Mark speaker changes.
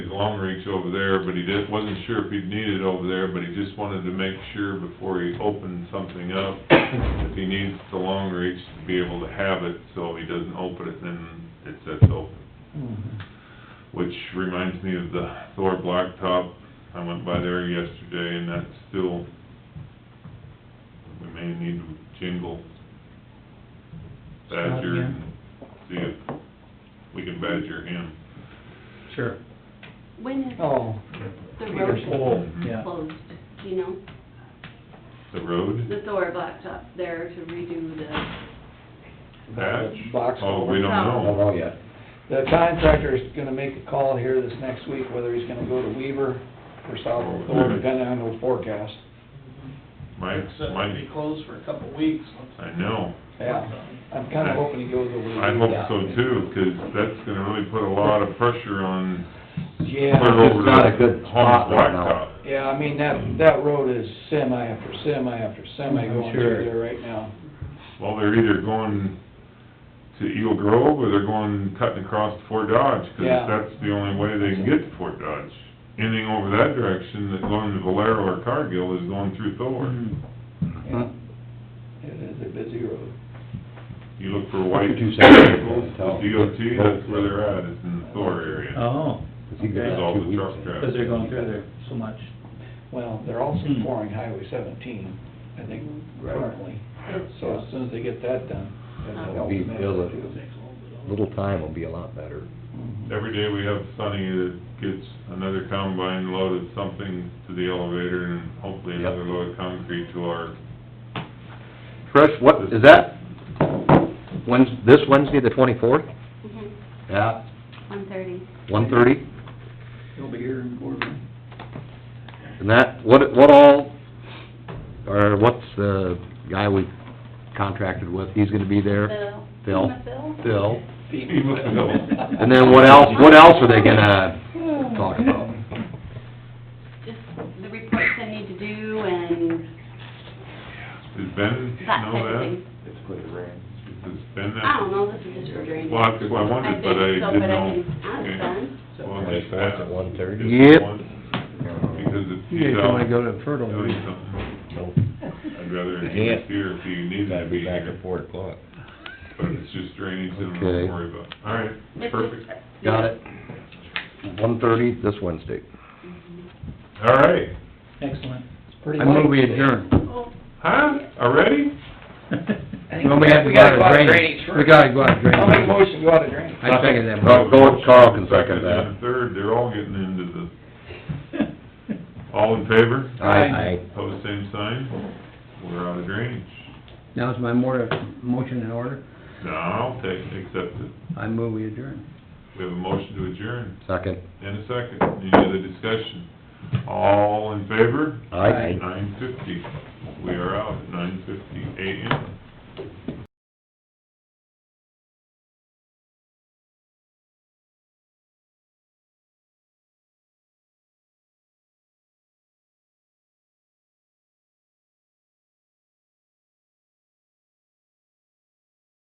Speaker 1: long reach over there, but he didn't, wasn't sure if he'd need it over there, but he just wanted to make sure before he opened something up, if he needs the long reach to be able to have it, so he doesn't open it, then it sets open. Which reminds me of the Thor Blacktop, I went by there yesterday, and that's still, we may need to jingle badger, and see if we can badger him.
Speaker 2: Sure.
Speaker 3: When is
Speaker 2: Oh,
Speaker 3: the
Speaker 2: Peter
Speaker 3: road
Speaker 2: Pohl, yeah.
Speaker 3: closed, do you know?
Speaker 1: The road?
Speaker 3: The Thor blacktop there to redo the,
Speaker 1: Patch?
Speaker 2: Box
Speaker 1: Oh, we don't
Speaker 2: culvert.
Speaker 3: No.
Speaker 1: know.
Speaker 4: know yet.
Speaker 2: The contractor's gonna make a call here this next week, whether he's gonna go to Weaver or South
Speaker 1: Or-
Speaker 2: Thor, depending on the forecast.
Speaker 1: Mike,
Speaker 5: It's, uh,
Speaker 1: Mike,
Speaker 5: be closed for a couple of weeks. Let's-
Speaker 1: I know.
Speaker 2: Yeah, I'm kinda hoping he goes over.
Speaker 1: I hope so too, 'cause that's gonna really put a lot of pressure on
Speaker 2: Yeah.
Speaker 1: clear over
Speaker 4: It's not a
Speaker 1: to
Speaker 4: good spot
Speaker 1: Holmes
Speaker 4: right now.
Speaker 1: Blacktop.
Speaker 2: Yeah, I mean, that, that road is semi after semi after semi
Speaker 4: I'm
Speaker 2: going
Speaker 4: sure.
Speaker 2: through there right now.
Speaker 1: Well, they're either going to Eagle Grove or they're going cutting across to Fort Dodge, 'cause
Speaker 2: Yeah.
Speaker 1: that's the only way they can get to Fort Dodge. Anything over that direction, that going to Valero or Cargill is going through Thor.
Speaker 2: Mm-hmm. Yeah. It is a busy road.
Speaker 1: You look for white
Speaker 4: Look at you,
Speaker 1: vehicles,
Speaker 4: Sam.
Speaker 1: the DOT, that's where they're at, it's in the Thor area.
Speaker 6: Oh,
Speaker 4: It's even
Speaker 1: There's
Speaker 4: got
Speaker 1: all
Speaker 4: two
Speaker 1: the
Speaker 4: weeks
Speaker 1: truck
Speaker 4: in it.
Speaker 1: traffic.
Speaker 6: because they're going through there so much.
Speaker 2: Well, they're also
Speaker 6: Hmm.
Speaker 2: pouring Highway seventeen, I think,
Speaker 6: Right.
Speaker 2: currently. So as soon as they get that done, that'll
Speaker 4: It'll
Speaker 2: help.
Speaker 4: be,
Speaker 2: them out,
Speaker 4: it'll-
Speaker 2: too.
Speaker 4: little time will be a lot better.
Speaker 2: Mhm.
Speaker 1: Every day we have Sunny that gets another combine load of something to the elevator and hopefully
Speaker 4: Yep.
Speaker 1: another load of concrete to our,
Speaker 4: Trish, what, is that, Wednes, this Wednesday, the twenty-fourth?
Speaker 3: mhm,
Speaker 4: Yeah.
Speaker 3: one thirty.
Speaker 4: One thirty?
Speaker 2: They'll be here in Gorman.
Speaker 4: And that, what, what all, or what's the guy we contracted with, he's gonna be there?
Speaker 3: Phil?
Speaker 4: Phil.
Speaker 3: Emma Phil?
Speaker 4: Phil.
Speaker 1: Phil.
Speaker 4: And then what else, what else are they gonna talk about?
Speaker 3: Just the reports I need to do and
Speaker 1: does Ben
Speaker 3: that
Speaker 1: know
Speaker 3: type of
Speaker 1: that?
Speaker 3: thing.
Speaker 1: Does Ben
Speaker 3: I
Speaker 1: that?
Speaker 3: don't know, this is just for drainage.
Speaker 1: Well, that's what I wondered, but I
Speaker 3: think so,
Speaker 1: didn't
Speaker 3: but I
Speaker 1: know.
Speaker 3: can ask
Speaker 1: Okay.
Speaker 3: them.
Speaker 1: Well, they
Speaker 4: Just
Speaker 1: said-
Speaker 4: at 1:30?
Speaker 1: just
Speaker 4: Yep.
Speaker 1: one, Because it's.
Speaker 6: You guys don't wanna go to Fertile.
Speaker 1: Doing something, I'd rather
Speaker 4: You
Speaker 1: hear
Speaker 4: can't.
Speaker 1: here if you need to be here,
Speaker 4: four o'clock.
Speaker 1: but it's just drainage and don't
Speaker 4: Okay.
Speaker 1: worry about. All right,
Speaker 3: It's
Speaker 1: perfect.
Speaker 3: just-
Speaker 4: Got it. One thirty this Wednesday.
Speaker 1: All right.
Speaker 6: Excellent.
Speaker 2: Pretty
Speaker 6: I move we
Speaker 2: late.
Speaker 6: adjourn.
Speaker 3: Oh,
Speaker 1: Huh? Already?
Speaker 6: Well, we have to
Speaker 2: we
Speaker 6: go
Speaker 2: gotta
Speaker 6: out
Speaker 2: go out of
Speaker 6: of
Speaker 2: drainage
Speaker 6: drainage.
Speaker 2: first.
Speaker 6: We gotta go out of
Speaker 2: I'll make a
Speaker 6: drainage.
Speaker 2: motion, to go out of drainage.
Speaker 6: I second that.
Speaker 4: Go- go- Carl can second that.
Speaker 1: and Third, they're all getting into the, all in favor?
Speaker 2: Aye.
Speaker 1: Pose same sign, we're out of drainage.
Speaker 6: Now is my more, motion in order.
Speaker 1: No, I'll take, accept it.
Speaker 6: I move we adjourn.
Speaker 1: We have a motion to adjourn,
Speaker 4: Second.
Speaker 1: and a second, any other discussion? All in favor?
Speaker 4: Aye.
Speaker 1: Nine fifty, we are out at nine fifty AM.